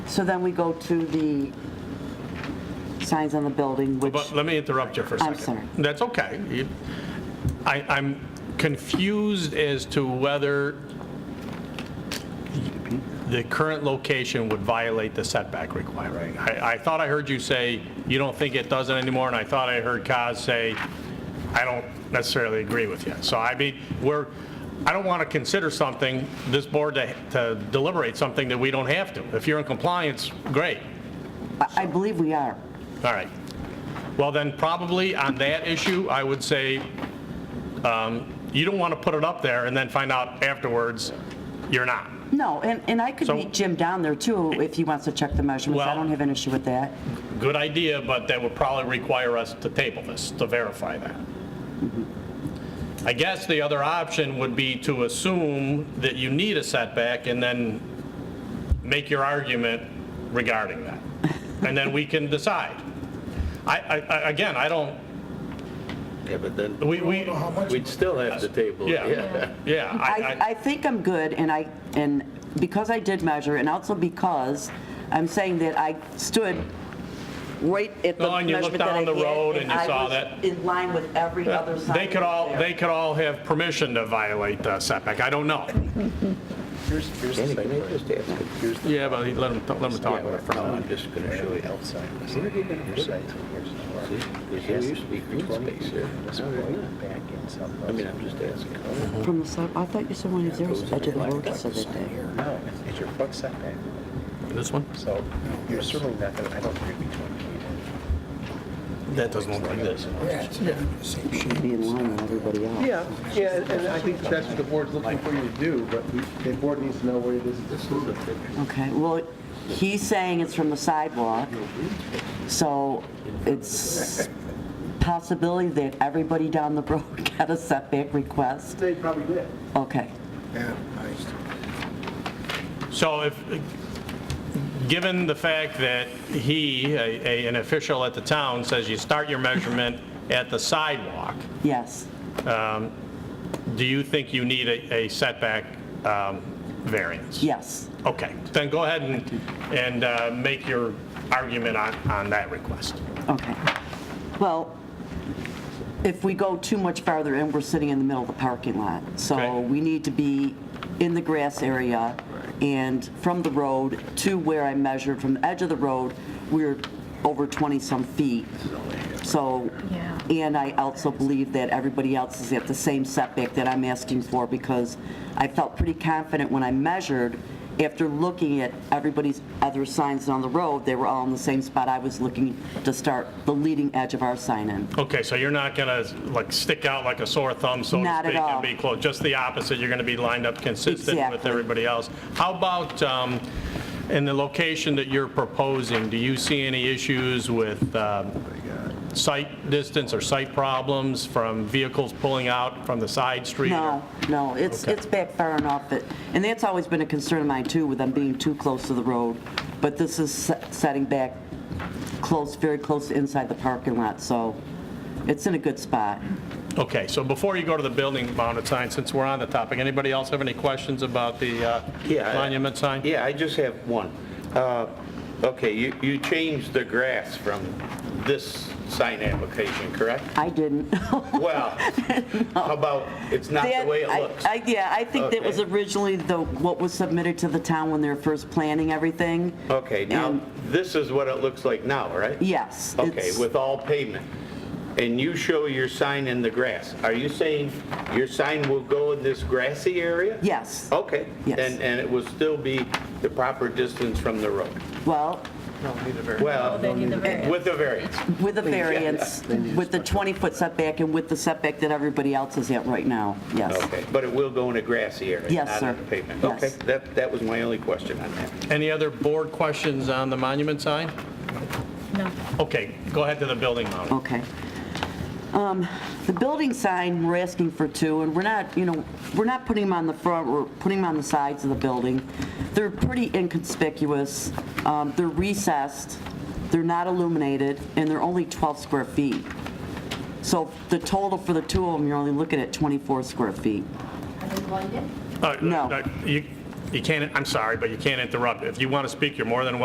So then we go to the signs on the building, which, But let me interrupt you for a I'm second. sorry. That's okay. You- I, I'm confused as to whether the current location would violate the setback requirement. I, I thought I heard you say you don't think it doesn't anymore, and I thought I heard Kaz say, I don't necessarily agree with you. So I mean, we're, I don't want to consider something, this board to to deliberate something that we don't have to. If you're in compliance, great. I- I believe we are. All right. Well, then, probably on that issue, I would say, um, you don't want to put it up there and then find out afterwards you're not. No, and, and I could So- meet Jim down there too, if he wants to check the measurements. I Well- don't have an issue with that. Good idea, but that would probably require us to table this, to verify that. I guess the other option would be to assume that you need a setback and then make your argument regarding that. And then we can decide. I, I, I- again, I don't, Yeah, but then we, we, we'd still have the table. yeah, yeah. I, I think I'm good, and I, and because I did measure, and also because I'm saying that I stood right at the No, and you measurement looked that I down the had, road and you I saw was that. in line with every other sign. They could that was all, there. they could all have permission to violate the setback, I don't know. Here's, here's the Danny, site can I plan. just ask? Here's the. Yeah, but let them, let them talk about it for a No, minute. I'm just gonna show you outside. Where are you gonna put it? Because there used to be green space there. Oh, Back in something. I mean, I'm just asking. From the side, I thought you said one of the others, I did the road that said that day. No, it's your front setback, This one? so you're certainly not gonna, I don't agree between you. That doesn't look like this. Be in line with everybody else. Yeah, yeah, and- and I think that's what the board's looking for you to do, but we- the board needs to know where it is. This is a Okay, well, he's saying it's from the sidewalk, so it's possibility that everybody down the road got a setback request. They probably did. Okay, So if, given the fact that he, a- a- an official at the town, says you start your measurement at the sidewalk, yes, do you think you need a a setback um, variance? yes. Okay, then go ahead and, and uh, make your argument on, on that request. Okay. Well, if we go too much farther in, we're sitting in the middle of the parking lot. So Okay. we need to be in the grass area and from the road to where I measured, from the edge of the road, we're over 20-some feet. So, Yeah. and I also believe that everybody else is at the same setback that I'm asking for because I felt pretty confident when I measured, after looking at everybody's other signs on the road, they were all in the same spot I was looking to start the leading edge of our sign in. Okay, so you're not gonna, like, stick out like a sore thumb, so to Not at speak, and all. be close, just the opposite, you're gonna be lined up consistent with Exactly. everybody else. How about, um, in the location that you're proposing, do you see any issues with um, sight distance or sight problems from vehicles pulling out from the side street? or- No, no, it's, Okay. it's back far enough, It- and that's always been a concern of mine too, with them being too close to the road, but this is se- setting back close, very close to inside the parking lot, so it's in a good spot. Okay, so before you go to the building mounted sign, since we're on the topic, anybody else have any questions about the uh, Yeah, I- monument sign? Yeah, I just have one. Uh, Okay, you, you changed the grass from this sign application, correct? I didn't. Well, how about, it's not the That- way it I- looks? I- Yeah, I think that was Okay. originally the, what was submitted to the town when they were first planning everything. Okay, now, And- this is what it looks like now, right? Yes. Okay, it's- with all pavement. And you show your sign in the grass. Are you saying your sign will go in this grassy area? Yes. Okay. Yes. And, and it will still be the proper distance from the road? Well, Well, need the variance. with a variance. with a variance, with the 20-foot setback and with the setback that everybody else is at right now, yes. Okay, but it will go in a grassy area? Yes, Not sir. in the pavement? Yes. Okay, that, that was my only question on that. Any other board questions on the monument sign? No. Okay, go ahead to the building mounted. Okay. Um, The building sign, we're asking for two, and we're not, you know, we're not putting them on the front, we're putting them on the sides of the building. They're pretty inconspicuous, um, they're recessed, they're not illuminated, and they're only 12 square feet. So the total for the two of them, you're only looking at 24 square feet. Uh, No. uh, You you can't, I'm sorry, but you can't interrupt. If you want to speak, you're more than welcome